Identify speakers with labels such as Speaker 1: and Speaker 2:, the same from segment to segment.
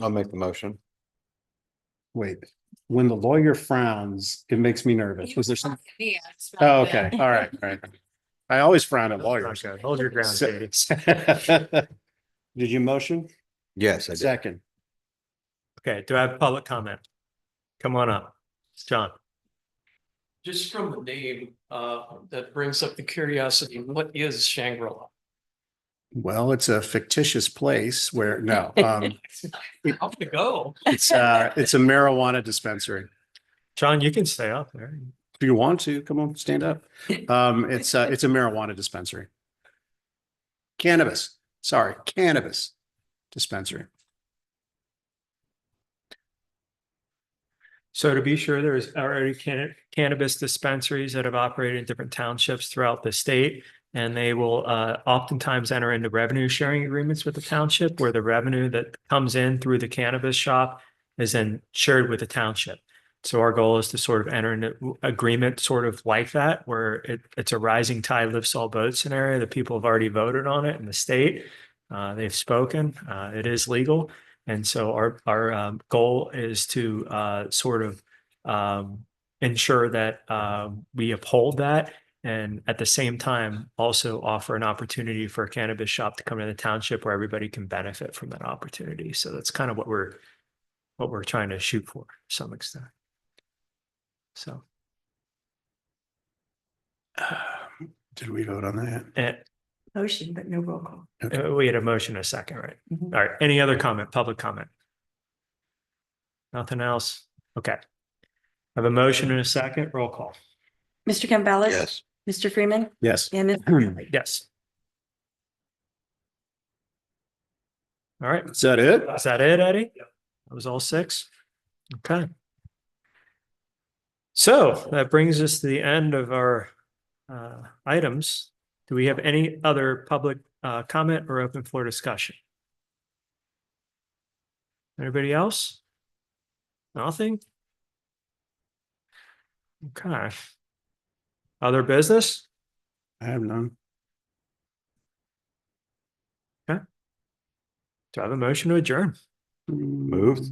Speaker 1: I'll make the motion.
Speaker 2: Wait, when the lawyer frowns, it makes me nervous. Was there some?
Speaker 3: Yeah.
Speaker 2: Oh, okay. All right, all right. I always frown at lawyers.
Speaker 4: Okay, Hold your ground,
Speaker 2: So-
Speaker 4: Katie.
Speaker 2: Did you motion?
Speaker 1: Yes, I did.
Speaker 2: Second.
Speaker 4: Okay, do I have public comment? Come on up, John.
Speaker 5: Just from the name, uh, that brings up the curiosity, what is Shangri-La?
Speaker 2: Well, it's a fictitious place where, no, um,
Speaker 5: How to go?
Speaker 2: it's, uh, it's a marijuana dispensary.
Speaker 4: John, you can stay up there.
Speaker 2: If you want to, come on, stand up. Um, it's a, it's a marijuana dispensary. Cannabis, sorry, cannabis dispensary.
Speaker 4: So to be sure, there is already can- cannabis dispensaries that have operated in different townships throughout the state. And they will uh, oftentimes enter into revenue sharing agreements with the township where the revenue that comes in through the cannabis shop is then shared with the township. So our goal is to sort of enter an agreement sort of like that, where it, it's a rising tide lifts all boats scenario. The people have already voted on it in the state. Uh, they've spoken. Uh, it is legal. And so our, our um, goal is to uh, sort of um, ensure that um, we uphold that. And at the same time, also offer an opportunity for a cannabis shop to come to the township where everybody can benefit from that opportunity. So that's kind of what we're, what we're trying to shoot for to some extent. So,
Speaker 2: Um, Did we vote on that?
Speaker 4: and
Speaker 3: Motion, but no roll call.
Speaker 4: Eh. uh, we had a motion and a second, right?
Speaker 3: Mhm.
Speaker 4: All right, any other comment, public comment? Nothing else? Okay. I have a motion and a second, roll call.
Speaker 6: Mr. Campbell.
Speaker 1: Yes,
Speaker 6: Mr. Freeman
Speaker 2: Yes.
Speaker 6: and Ms.
Speaker 4: Yes. All right,
Speaker 2: Is that it?
Speaker 4: is that it, Eddie? That was all six? Okay. So that brings us to the end of our uh items. Do we have any other public uh comment or open floor discussion? Anybody else? Nothing? Okay. Other business?
Speaker 2: I have none.
Speaker 4: Do I have a motion to adjourn?
Speaker 1: Moved.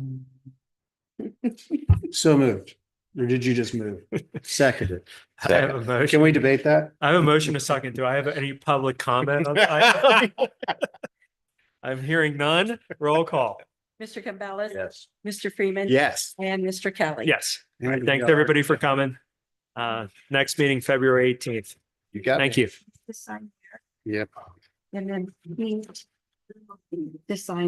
Speaker 2: So moved. Or did you just move? Seconded.
Speaker 4: I have a motion.
Speaker 2: Can we debate that?
Speaker 4: I have a motion a second. Do I have any public comment? on the item? I'm hearing none. Roll call.
Speaker 6: Mr. Campbell.
Speaker 1: yes.
Speaker 6: Mr. Freeman.
Speaker 2: Yes.
Speaker 6: And Mr. Kelly.
Speaker 4: Yes. Thanks, everybody, for coming. Uh, next meeting, February eighteenth.
Speaker 2: You got.
Speaker 4: Thank you.
Speaker 6: This sign,
Speaker 2: Yep.
Speaker 6: and then this sign